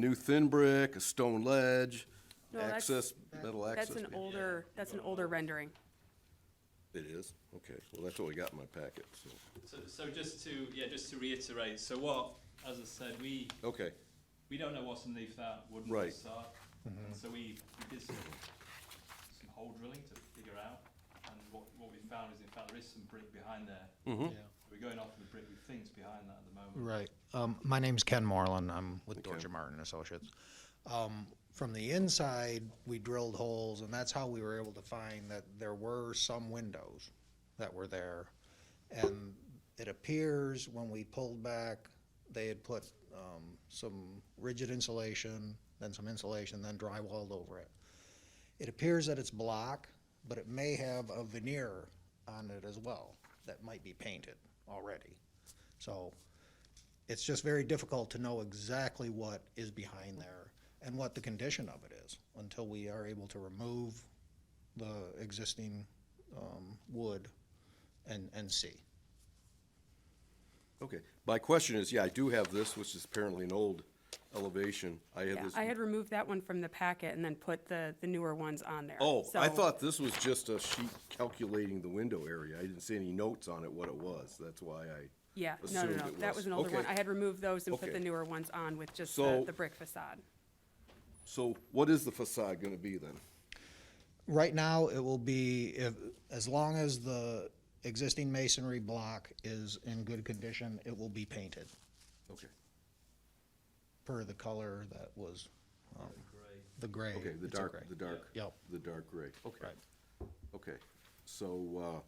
new thin brick, a stone ledge, No, that's- access, metal access. That's an be- older, that's an older rendering. It is? Okay, well, that's what we got in my packet, so, So, so just to, yeah, just to reiterate, so what, as I said, we, okay, we don't know what's underneath that wooden Right. facade. And So we, we did some, some hole drilling to figure out, and what, what we found is in fact there is some brick behind there. We're going off the brick with things behind that at the moment. Right. Um, my name's Ken Moreland. I'm with Ken. Georgia Martin Associates. Um, from the inside, we drilled holes, and that's how we were able to find that there were some windows that were there. And it appears when we pulled back, they had put um, some rigid insulation, then some insulation, then drywalled over it. It appears that it's block, but it may have a veneer on it as well that might be painted already. So it's just very difficult to know exactly what is behind there and what the condition of it is until we are able to remove the existing um, wood and, and see. okay. My question is, yeah, I do have this, which is apparently an old elevation. I had Yeah, this. I had removed that one from the packet and then put the, the newer ones on there. Oh, I So- thought this was just a sheet calculating the window area. I didn't see any notes on it, what it was. That's why I. Yeah, no, no, assumed no, it that was an older one. Okay. I had removed those and put Okay. the newer ones on with just the, So- the brick facade. So what is the facade gonna be then? Right now, it will be, if, as long as the existing masonry block is in good condition, it will be painted Okay, per the color that was, um, Great. the gray. okay, the it's a dark, gray. the dark. Yep. The dark gray, okay, Right. okay. So,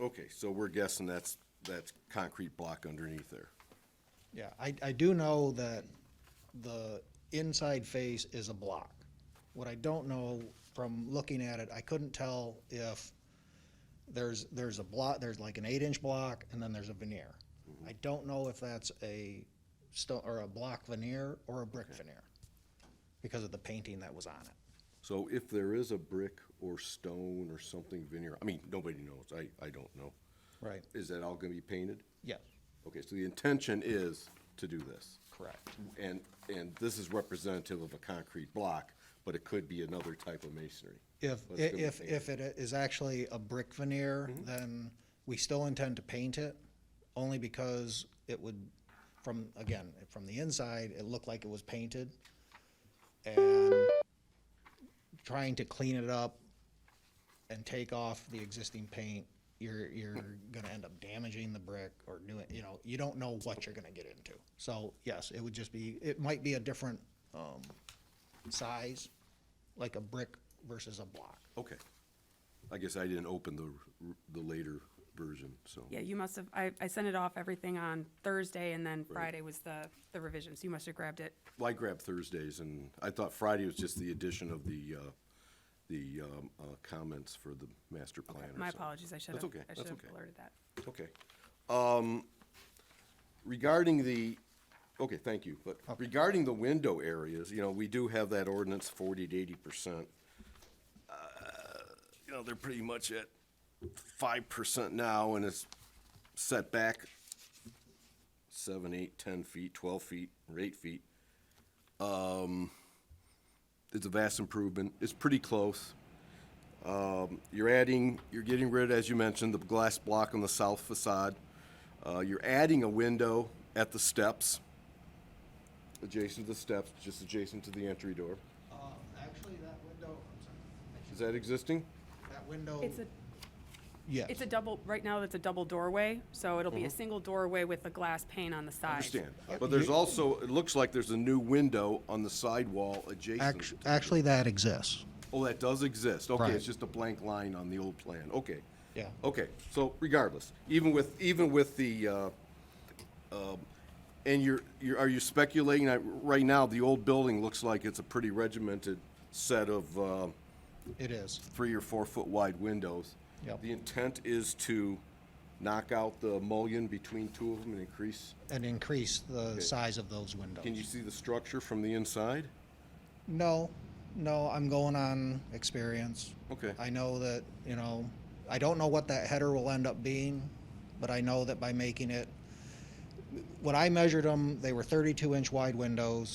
uh, okay, so we're guessing that's, that's concrete block underneath there. Yeah, I, I do know that the inside face is a block. What I don't know from looking at it, I couldn't tell if there's, there's a block, there's like an eight-inch block, and then there's a veneer. I don't know if that's a stone, or a block veneer or a brick veneer, because of the painting that was on it. So if there is a brick or stone or something veneer, I mean, nobody knows, I, I don't know. Right. Is that all gonna be painted? Yes, Okay, so the intention is to do this. correct. And, and this is representative of a concrete block, but it could be another type of masonry. If, But it's gonna if, be if it is actually a brick veneer, then we still intend to paint it, only because it would, from, again, from the inside, it looked like it was painted. And trying to clean it up and take off the existing paint, you're, you're gonna end up damaging the brick or doing, you know, you don't know what you're gonna get into. So, yes, it would just be, it might be a different, um, size, like a brick versus a block. Okay. I guess I didn't open the, r- the later version, so. Yeah, you must have, I, I sent it off everything on Thursday and then Friday was the, the revisions. You must have grabbed it. Well, I grabbed Thursdays, and I thought Friday was just the addition of the, uh, the um, uh, comments for the master plan or My something. apologies, I should That's have, okay, I should that's have okay. alerted that. Okay. Um, regarding the, okay, thank you, but regarding the window areas, you know, we do have that ordinance forty to eighty percent. Uh, You know, they're pretty much at five percent now and it's set back seven, eight, ten feet, twelve feet, or eight feet. Um, it's a vast improvement. It's pretty close you're adding, you're getting rid, as you mentioned, the glass block on the south facade. Uh, you're adding a window at the steps, adjacent to the steps, just adjacent to the entry door. Uh, Actually, that window, I'm sorry, Is that existing? that window. Oh. It's a, Yes. it's a double, right now it's a double doorway, so it'll be a single doorway with a glass pane on the side. I Mm-hmm. understand. But there's also, it looks like there's a new window on the sidewall adjacent. Actu- Actually, that exists. Oh, that does exist. Okay, Right. it's just a blank line on the old plan. Okay. Yeah. Okay, so regardless, even with, even with the, uh, um, And you're, you're, are you speculating, I- right now, the old building looks like it's a pretty regimented set of, uh, It is. three or four foot wide windows. Yep. The intent is to knock out the mullion between two of them and increase, And increase the size of those windows. can you see the structure from the inside? No, no, I'm going on experience. Okay. I know that, you know, I don't know what that header will end up being, but I know that by making it when I measured them, they were thirty-two inch wide windows.